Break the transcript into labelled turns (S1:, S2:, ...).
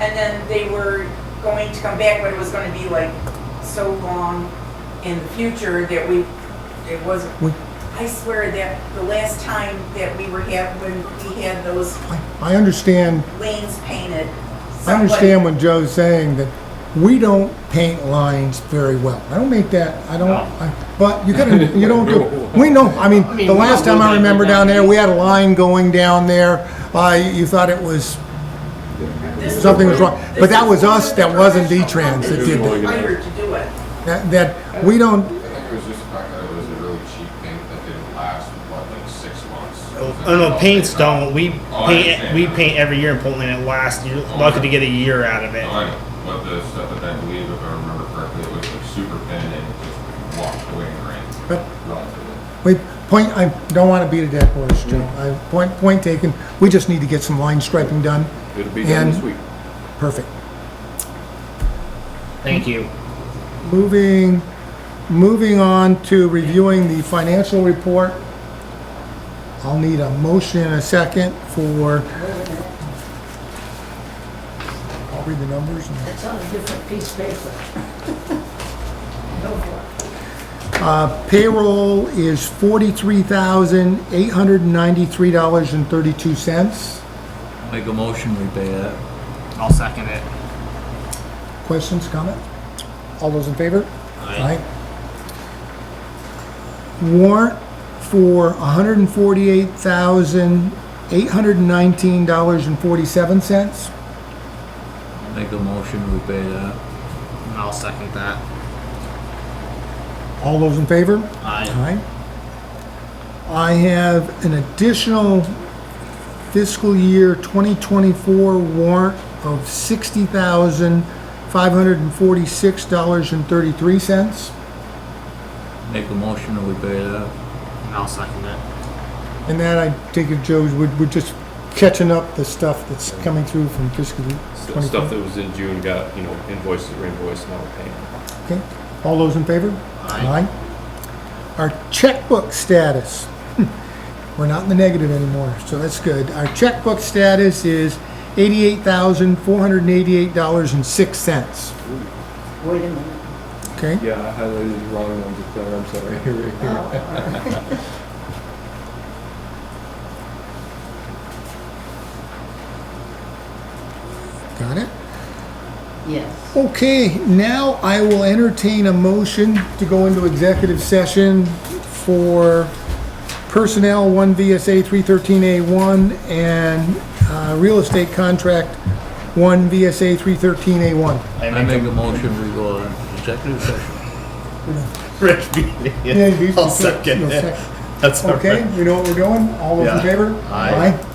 S1: And then they were going to come back, but it was gonna be like so long in the future that we, it wasn't.
S2: We-
S1: I swear that the last time that we were had, when we had those
S2: I I understand,
S1: lanes painted.
S2: I understand what Joe's saying, that we don't paint lines very well. I don't make that, I don't,
S3: No.
S2: I- but you gotta, you don't do, we know, I mean, the last time I remember down there, we had a line going down there. Uh, you thought it was,
S1: This-
S2: something was wrong.
S1: this
S2: But that
S1: is
S2: was
S1: one
S2: us,
S1: of the
S2: that wasn't
S1: professional
S2: D-Trans that
S1: companies
S3: did that.
S1: hired to do it.
S2: that, that, we don't,
S4: I think it was just the fact that it was a really cheap paint that didn't last, what, like six months?
S5: Oh no, paints don't. We
S4: Oh, I
S5: paint
S4: understand.
S5: we paint every year in Portland. It lasts. You're lucky to get a year out of it.
S4: Like, what the stuff that I believe, if I remember correctly, it was like super thin and it just walked away in the rain.
S2: But- we,
S4: Relatively.
S2: point, I don't wanna beat a dead horse, Joe. I, point, point taken, we just need to get some line striping done.
S3: It'll be done this
S2: And-
S3: week.
S2: Perfect.
S5: Thank you.
S2: Moving, moving on to reviewing the financial report. I'll need a motion and a second for, I'll read the numbers. and-
S6: It's on a different piece of paper. Go for
S2: Payroll is forty-three thousand, eight hundred and ninety-three dollars and thirty-two cents.
S7: Make a motion, we pay that.
S5: I'll second it.
S2: Questions, comment? All those in favor? Aye. Warrant for hundred and forty-eight thousand, eight hundred and nineteen dollars and forty-seven cents.
S7: Make a motion, we pay that.
S5: I'll second that.
S2: All those in favor?
S5: I
S2: Aye. I have an additional fiscal year 2024 warrant of $60,546.33.
S7: Make a motion, we pay that.
S5: I'll second it.
S2: And that, I take it, Joe, would we're just catching up the stuff that's coming through from fiscal year
S3: St- Stuff
S2: 24.
S3: that was in June got, you know, invoices, reinvoiced, now we're paying.
S2: Okay, all those in favor? Aye. Our checkbook status, Hmm. we're not in the negative anymore, so that's good. Our checkbook status is eighty-eight thousand, four hundred and eighty-eight dollars and six cents,
S6: it. Wait a minute.
S2: okay?
S3: Yeah, I highlighted the wrong ones up there, I'm sorry.
S6: Oh,
S2: Got it?
S6: Yes.
S2: Okay, now I will entertain a motion to go into executive session for personnel, one VSA three thirteen A one, and, uh, real estate contract, one VSA three thirteen A one.
S7: I make a motion, we go on executive session.
S5: Rich beat it. I'll second it. That's all right.
S2: Okay, we know what we're doing, all those in
S5: Yeah.
S2: favor?
S5: Aye.